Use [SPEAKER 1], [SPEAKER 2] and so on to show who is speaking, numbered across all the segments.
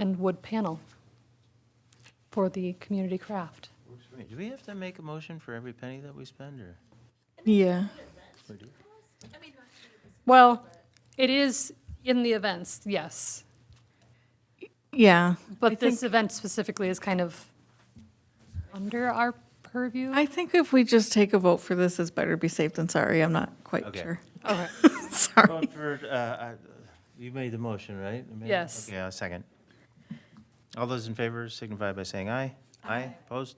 [SPEAKER 1] and wood panel for the community craft.
[SPEAKER 2] Works for me. Do we have to make a motion for every penny that we spend, or?
[SPEAKER 3] Yeah.
[SPEAKER 2] or do-
[SPEAKER 1] Well, it is in the events, yes.
[SPEAKER 3] Yeah. I
[SPEAKER 1] But
[SPEAKER 3] think,
[SPEAKER 1] this event specifically is kind of under our purview.
[SPEAKER 3] I think if we just take a vote for this, it's better be safe than sorry. I'm not quite
[SPEAKER 2] Okay.
[SPEAKER 3] sure.
[SPEAKER 1] Okay.
[SPEAKER 3] Sorry.
[SPEAKER 2] Going for, uh, uh, You made the motion, right? Amanda?
[SPEAKER 1] Yes.
[SPEAKER 2] Okay, I'll second. All those in favor signify by saying aye. Aye. Opposed?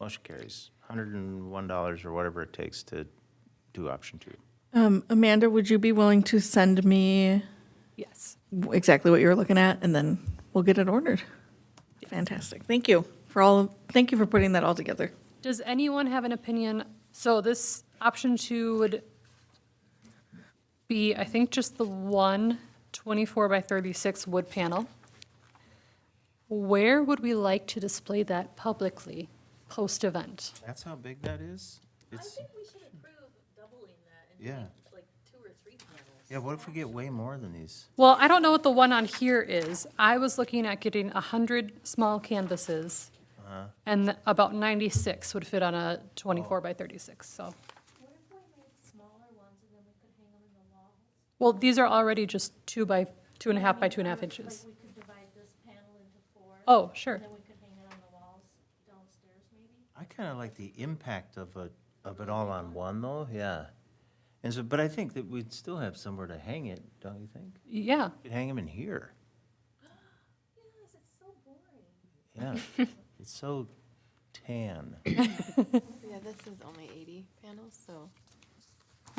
[SPEAKER 2] Motion carries. $101 or whatever it takes to do option two.
[SPEAKER 3] Um, Amanda, would you be willing to send me
[SPEAKER 1] Yes.
[SPEAKER 3] w- exactly what you were looking at and then we'll get it ordered? Fantastic. Thank you for all, thank you for putting that all together.
[SPEAKER 1] Does anyone have an opinion? So this option two would be, I think, just the one 24 by 36 wood panel. Where would we like to display that publicly, post-event?
[SPEAKER 2] That's how big that is?
[SPEAKER 4] I
[SPEAKER 2] It's,
[SPEAKER 4] think we should approve doubling that and
[SPEAKER 2] Yeah.
[SPEAKER 4] make like two or three panels.
[SPEAKER 2] yeah, what if we get way more than these?
[SPEAKER 1] Well, I don't know what the one on here is. I was looking at getting 100 small canvases, and about 96 would fit on a 24 by 36, so.
[SPEAKER 5] What if we make smaller ones and then we could hang them in the walls?
[SPEAKER 1] Well, these are already just two by, two and a half by two and a half inches.
[SPEAKER 5] Like we could divide this panel into four.
[SPEAKER 1] Oh, sure.
[SPEAKER 5] And then we could hang it on the walls downstairs maybe?
[SPEAKER 2] I kind of like the impact of a, of it all on one, though, yeah. And so, but I think that we'd still have somewhere to hang it, don't you think?
[SPEAKER 1] Yeah,
[SPEAKER 2] We Could hang them in here,
[SPEAKER 5] Yes, it's so boring.
[SPEAKER 2] yeah. It's so tan.
[SPEAKER 6] Yeah, this is only 80 panels, so.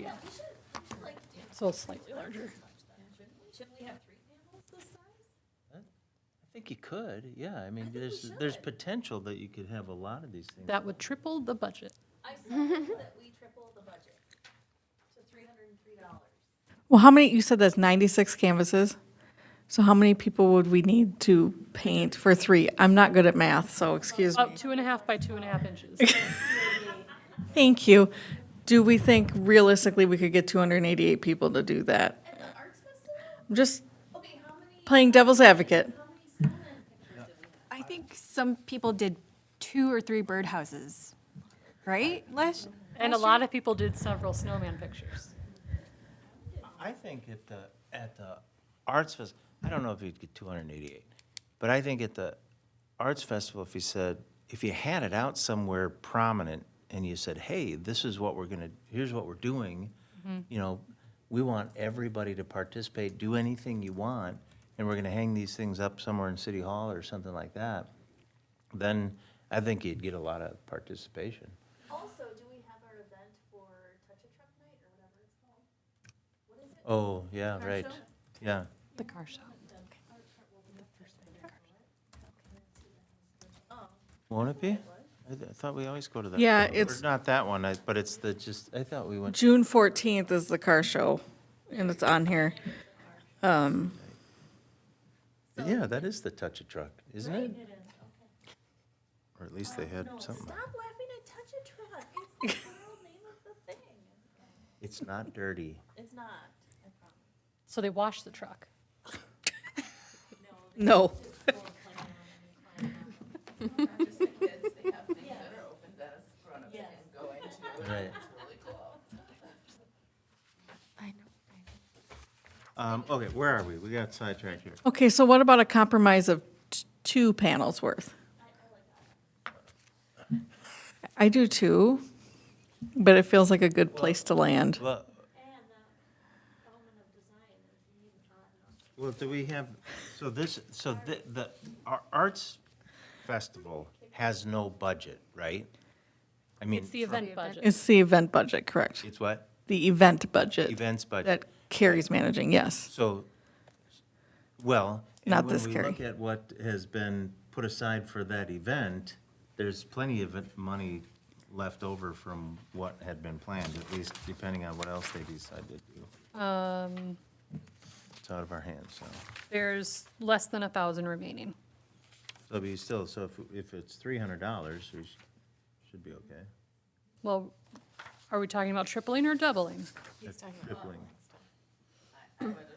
[SPEAKER 1] yeah,
[SPEAKER 4] We should, we should like do
[SPEAKER 1] so slightly larger.
[SPEAKER 4] larger. Shouldn't we? Shouldn't we have three panels this size?
[SPEAKER 2] I think you could, yeah. I mean, there's, there's potential that you could have a lot of these things.
[SPEAKER 1] That would triple the budget.
[SPEAKER 4] I said that we triple the budget to three hundred and three dollars.
[SPEAKER 3] Well, how many, you said that's 96 canvases? So how many people would we need to paint for three? I'm not good at math, so excuse me.
[SPEAKER 1] About two and a half by two and a half inches.
[SPEAKER 3] Thank you. Do we think realistically we could get 288 people to do that?
[SPEAKER 4] At the arts festival?
[SPEAKER 3] I'm just
[SPEAKER 4] Okay, how many,
[SPEAKER 3] playing devil's advocate.
[SPEAKER 4] how many silent pictures did we have?
[SPEAKER 7] I think some people did two or three birdhouses, right? Last,
[SPEAKER 1] And a lot of people did several snowman pictures.
[SPEAKER 2] I think at the, at the Arts Fest, I don't know if you'd get two hundred and eighty-eight, but I think at the Arts Festival, if you said, if you had it out somewhere prominent and you said, hey, this is what we're gonna, here's what we're doing, you know, we want everybody to participate, do anything you want, and we're gonna hang these things up somewhere in City Hall or something like that, then I think you'd get a lot of participation.
[SPEAKER 4] Also, do we have our event for Touch a Truck Night or whatever it's called?
[SPEAKER 2] Oh, yeah, right,
[SPEAKER 4] show?
[SPEAKER 2] yeah.
[SPEAKER 1] The car show.
[SPEAKER 2] Won't it be? I th- I thought we always go to that.
[SPEAKER 3] Yeah,
[SPEAKER 2] one. Or
[SPEAKER 3] it's-
[SPEAKER 2] Not that one, I- but it's the, just, I thought we went,
[SPEAKER 3] June 14th is the car show, and it's on here. Um,
[SPEAKER 2] yeah, that is the touch a truck, isn't it? Or at least they had something.
[SPEAKER 4] Stop laughing at Touch a Truck. It's the real name of the thing.
[SPEAKER 2] It's not dirty.
[SPEAKER 4] It's not, I promise.
[SPEAKER 1] So they washed the truck.
[SPEAKER 3] No.
[SPEAKER 2] Right.
[SPEAKER 6] I know.
[SPEAKER 2] Um, okay, where are we? We got sidetracked here.
[SPEAKER 3] Okay, so what about a compromise of t- two panels worth? I do too, but it feels like a good place to land.
[SPEAKER 2] Well,
[SPEAKER 5] And the element of design is you need odd numbers.
[SPEAKER 2] well, do we have, so this, so the, the, our arts festival has no budget, right? I mean.
[SPEAKER 1] It's the event budget.
[SPEAKER 3] It's the event budget, correct?
[SPEAKER 2] It's what?
[SPEAKER 3] The event budget.
[SPEAKER 2] Events budget.
[SPEAKER 3] That Carrie's managing, yes.
[SPEAKER 2] So, well. and
[SPEAKER 3] Not this,
[SPEAKER 2] When we
[SPEAKER 3] Carrie.
[SPEAKER 2] look at what has been put aside for that event, there's plenty of it- money left over from what had been planned, at least depending on what else they decide to do.
[SPEAKER 1] Um,
[SPEAKER 2] It's out of our hands, so.
[SPEAKER 1] There's less than a 1,000 remaining.
[SPEAKER 2] So be still, so if, if it's three hundred dollars, we sh- should be okay.
[SPEAKER 1] Well, are we talking about tripling or doubling?
[SPEAKER 6] He's talking about.
[SPEAKER 2] Tripling.
[SPEAKER 8] I would